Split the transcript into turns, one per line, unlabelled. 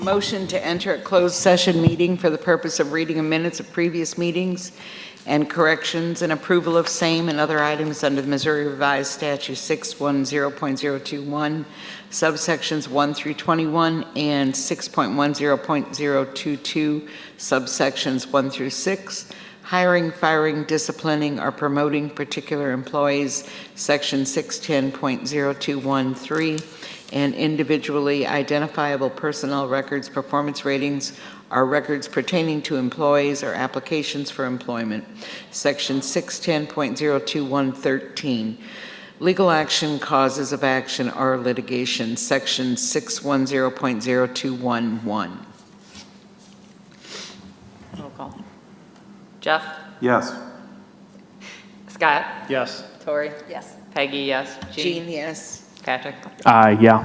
Motion to enter a closed session meeting for the purpose of reading of minutes of previous meetings and corrections and approval of same and other items under the Missouri Revised Statute 610.021, subsections 1 through 21, and 6.10.022, subsections 1 through 6, hiring, firing, disciplining, or promoting particular employees, Section 610.0213, and individually identifiable personnel records, performance ratings, are records pertaining to employees or applications for employment, Section 610.02113. Legal action, causes of action, or litigation, Section 610.0211.
Roll call. Jeff?
Yes.
Scott?
Yes.
Tori? Yes. Peggy, yes. Jean?
Gene, yes?
Patrick?
Uh, yeah.